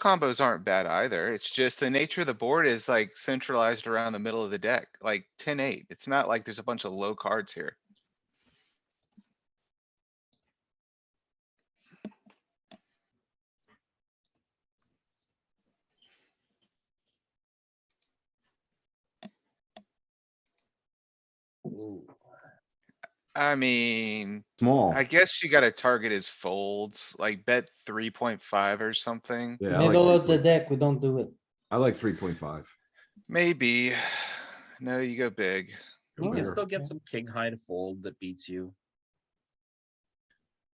combos aren't bad either. It's just the nature of the board is like centralized around the middle of the deck, like 10-8. It's not like there's a bunch of low cards here. I mean, Small. I guess you gotta target his folds, like bet three point five or something, Yeah, I like Middle of the 3.5. deck, we don't do it. I like three point five. maybe. No, you go big. No, You can Whatever. still get some king high to fold that beats you.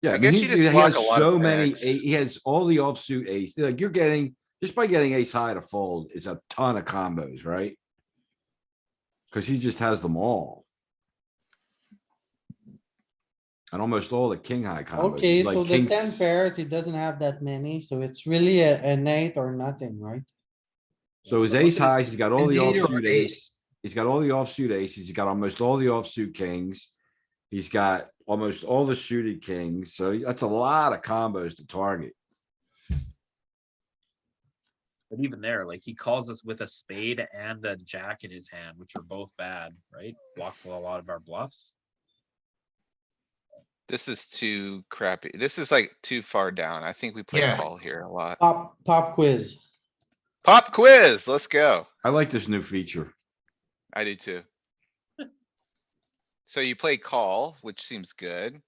Yeah, I I mean, guess you he's- just he block has a lot so of many, packs. a- he has all the offsuit ace, like you're getting, just by getting ace high to fold is a ton of combos, right? Cause he just has them all. And almost all the king high combos. Okay, so Uh, like the king ten s- pairs, he doesn't have that many, so it's really a, an eight or nothing, right? So his Look at ace his highs, he's got all the indeed or offsuit ace. ace, he's got all the offsuit aces, he's got almost all the offsuit kings. He's got almost all the suited kings, so that's a lot of combos to target. But even there, like he calls us with a spade and a jack in his hand, which are both bad, right? Blocks a lot of our bluffs. This is too crappy. This is like too far down. I think we play Yeah. call here a lot. Pop, pop quiz. Pop quiz, let's go. I like this new feature. I do too. So you play call, which seems good.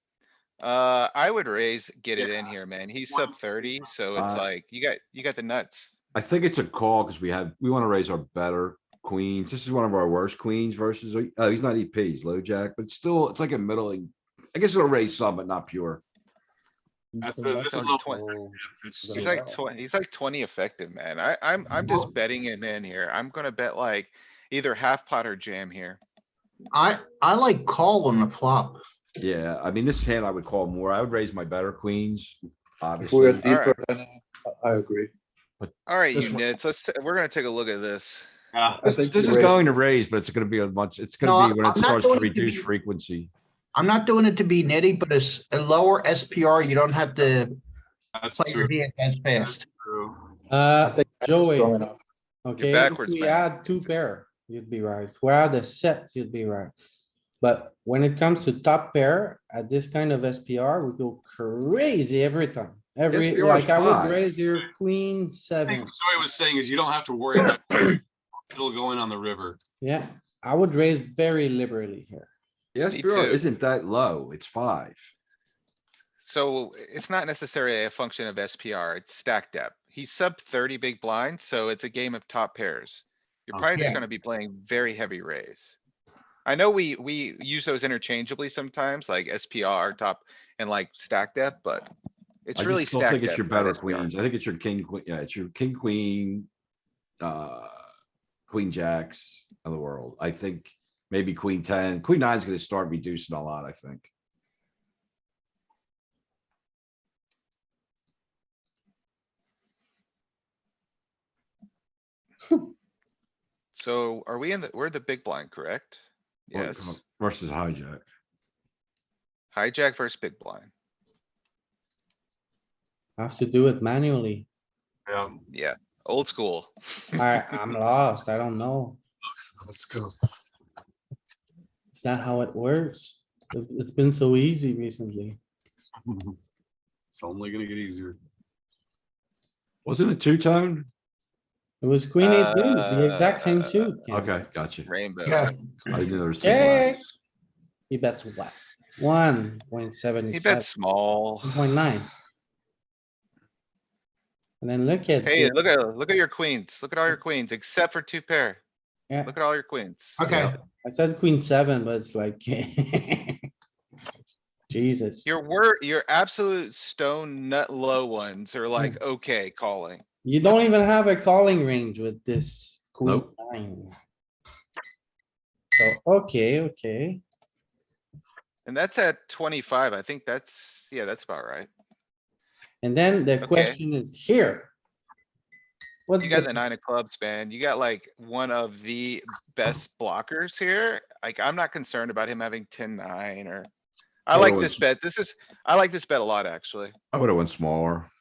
Uh, I would raise, get it in here, man. He's sub thirty, so it's Uh, like, you got, you got the nuts. I think it's a call because we have, we want to raise our better queens. This is one of our worst queens versus, oh, he's not EP, he's low jack, but still, it's like a middling. I guess it'll raise some, but not pure. That's- So this that's is a low- Oh, little- He's It's Doesn't just- like sell. twenty, he's like twenty effective, man. I, I'm, I'm just betting him in here. I'm gonna bet like either half pot or jam here. I, I like call on the flop. Yeah, I mean, this hand I would call more. I would raise my better queens, If we are obviously. Alright. deeper, then I- I agree. Alright, This you one- nits, let's, we're gonna take a look at this. I This think this you is raised- going to raise, but it's gonna be a much, it's No, gonna be when I'm it not starts to going to reduce be- frequency. I'm not doing it to be nitty, but it's a lower SPR. You don't have to That's play your true. hand as fast. true. Uh, I think that's Joey, strong enough. okay, if backwards, we man. had two pair, you'd be right. If we had a set, you'd be right. But when it comes to top pair, at this kind of SPR, we go crazy every time. Every, SPR is like I would fine. raise your queen I think seven. what Joey was saying is you don't have to worry about still going on the river. Yeah, I would raise very liberally here. Yeah, Me SPR too. isn't that low. It's five. So it's not necessarily a function of SPR, it's stack depth. He's sub thirty big blind, so it's a game of top pairs. You're Oh, probably just yeah. gonna be playing very heavy raise. I know we, we use those interchangeably sometimes, like SPR, top, and like stack depth, but it's I really just still think stack it's depth. your not better SPR. queens. I think it's your king, queen, yeah, it's your king, queen, uh, queen jacks of the world. I think maybe queen ten, queen nine's gonna start reducing a lot, I think. So are we in the, we're the big blind, correct? Or Yes, Versus hijack. hijack versus big blind. I have to do it manually. Yeah, Yeah, old school. I, I'm lost. I don't know. let's go. It's not how it works. It- It's been so easy recently. It's only gonna get easier. Wasn't it two tone? It was queen eight deuce, the exact same Uh, suit. Ken. Okay, gotcha. Yeah, Rainbow. I didn't know there was two Okay. lines. He bets what? One point seven He seven, bet small. one point nine. And then look at. Hey, uh, the- look at, look at your queens. Look at all your queens except for two pair. Yeah. Look at all your queens. okay. I said queen seven, but it's like. Jesus, Your word, your absolute stone nut low ones are like, okay, calling. you don't even have a calling range with this queen Nope. nine. So, okay, okay. And that's at twenty-five. I think that's, yeah, that's about right. And then the Okay. question is here. What's You got the the, nine of clubs, man. You got like one of the best blockers here. Like, I'm not concerned about him having ten, nine or. I Yeah, like well, this it's- bet. This is, I like this bet a lot, actually. I would have went smaller.